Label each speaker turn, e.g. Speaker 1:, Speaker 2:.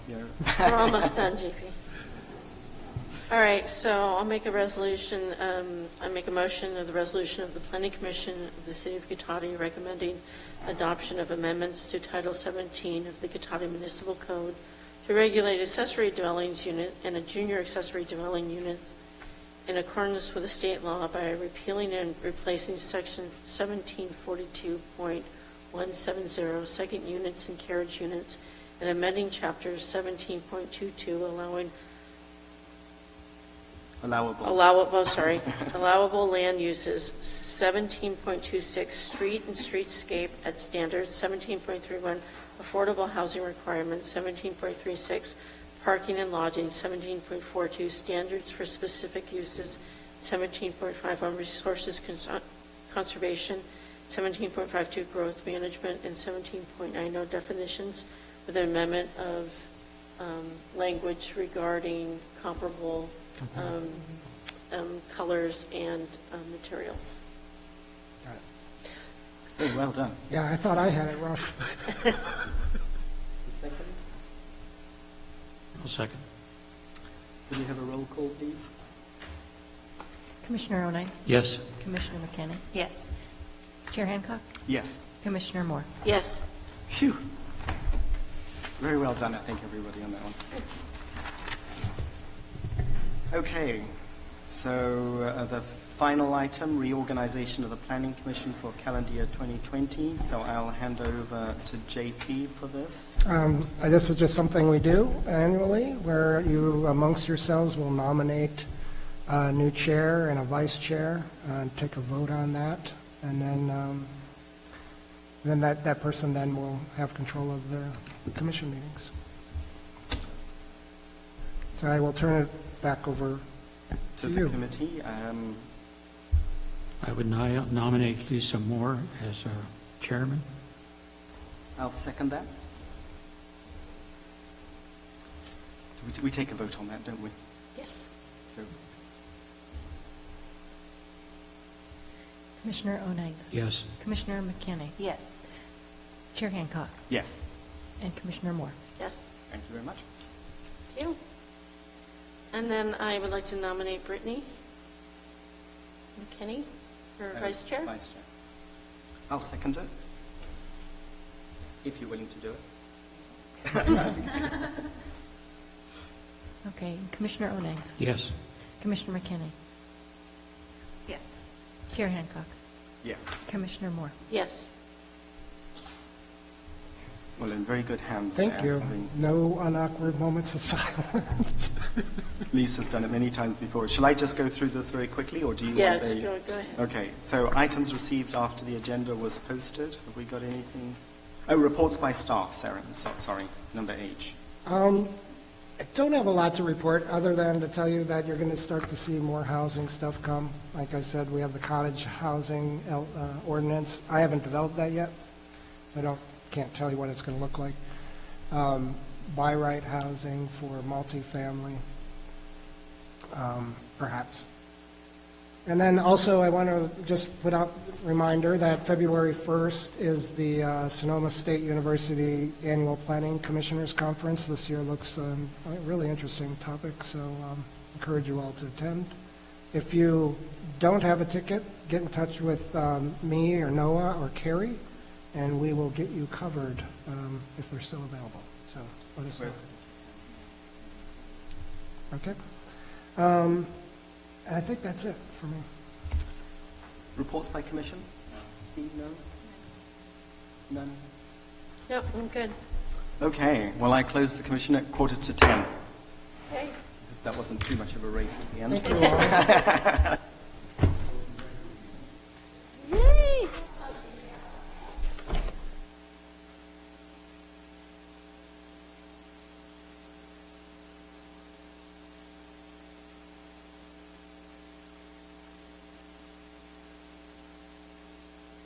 Speaker 1: Yeah.
Speaker 2: We're almost done, JP. All right, so I'll make a resolution, um, I make a motion of the resolution of the Planning Commission of the City of Guitati recommending adoption of amendments to Title 17 of the Guitati Municipal Code to regulate accessory dwellings unit and a junior accessory dwelling unit in accordance with the state law by repealing and replacing section 1742.170, second units and carriage units, and amending chapter 17.22, allowing
Speaker 1: Allowable.
Speaker 2: allowable, oh, sorry, allowable land uses, 17.26, street and streetscape at standards, 17.31, affordable housing requirements, 17.36, parking and lodging, 17.42, standards for specific uses, 17.51, resources cons- conservation, 17.52, growth management, and 17.90, definitions, with an amendment of um, language regarding comparable um, um, colors and um, materials.
Speaker 1: Got it. Hey, well done.
Speaker 3: Yeah, I thought I had it rough.
Speaker 4: I'll second.
Speaker 1: Could we have a roll call, please?
Speaker 5: Commissioner O'Naitz?
Speaker 4: Yes,
Speaker 5: Commissioner McKenna? Yes. Chair Hancock?
Speaker 1: Yes.
Speaker 5: Commissioner Moore?
Speaker 2: Yes,
Speaker 1: Phew. Very well done, I think, everybody on that one. Okay, so uh, the final item, reorganization of the Planning Commission for calendar year 2020. So I'll hand over to JP for this.
Speaker 3: Um, uh, This is just something we do annually, where you amongst yourselves will nominate a new chair and a vice chair, uh, and take a vote on that, and then, um, then that, that person then will have control of the commission meetings. So I will turn it back over
Speaker 1: To
Speaker 3: to
Speaker 1: the
Speaker 3: you.
Speaker 1: committee, um,
Speaker 4: I would ni- nominate Lisa Moore as our chairman.
Speaker 1: I'll second that. We- We take a vote on that, don't we?
Speaker 5: Yes.
Speaker 1: So
Speaker 5: Commissioner O'Naitz?
Speaker 4: Yes,
Speaker 5: Commissioner McKenna? Yes. Chair Hancock?
Speaker 1: Yes,
Speaker 5: And Commissioner Moore?
Speaker 2: yes,
Speaker 1: thank you very much.
Speaker 2: thank you. And then I would like to nominate Brittany McKinney for
Speaker 1: Uh,
Speaker 2: vice chair.
Speaker 1: Vice Chair. I'll second it, if you're willing to do it.
Speaker 5: Okay, Commissioner O'Naitz?
Speaker 4: yes,
Speaker 5: Commissioner McKenna? Yes. Chair Hancock?
Speaker 1: Yes.
Speaker 5: Commissioner Moore?
Speaker 2: Yes,
Speaker 1: Well, in very good hands.
Speaker 3: Thank
Speaker 1: there.
Speaker 3: you.
Speaker 1: I mean,
Speaker 3: No unawkward moments of silence.
Speaker 1: Lisa's done it many times before. Shall I just go through this very quickly, or do you want
Speaker 2: yes,
Speaker 1: the...
Speaker 2: go go ahead.
Speaker 1: Okay, so items received after the agenda was posted. Have we got anything? Oh, reports by staff, Sarah, so- sorry, number H.
Speaker 3: Um, I don't have a lot to report, other than to tell you that you're going to start to see more housing stuff come. Like I said, we have the cottage housing el- uh, ordinance. I haven't developed that yet. I don't, can't tell you what it's going to look like. Um, Buy right housing for multifamily, um, perhaps. And then also, I want to just put out a reminder that February 1st is the uh, Sonoma State University Annual Planning Commissioners Conference. This year looks um, a really interesting topic, so um, encourage you all to attend. If you don't have a ticket, get in touch with um, me or Noah or Carrie, and we will get you covered um, if they're still available. So let us know. Okay? Um, And I think that's it for me.
Speaker 1: Reports by commission? Steve, no? None?
Speaker 2: Yep, I'm good.
Speaker 1: Okay, well, I close the commission at quarter to 10.
Speaker 2: Okay.
Speaker 1: That wasn't too much of a race at the end.
Speaker 3: Thank you all.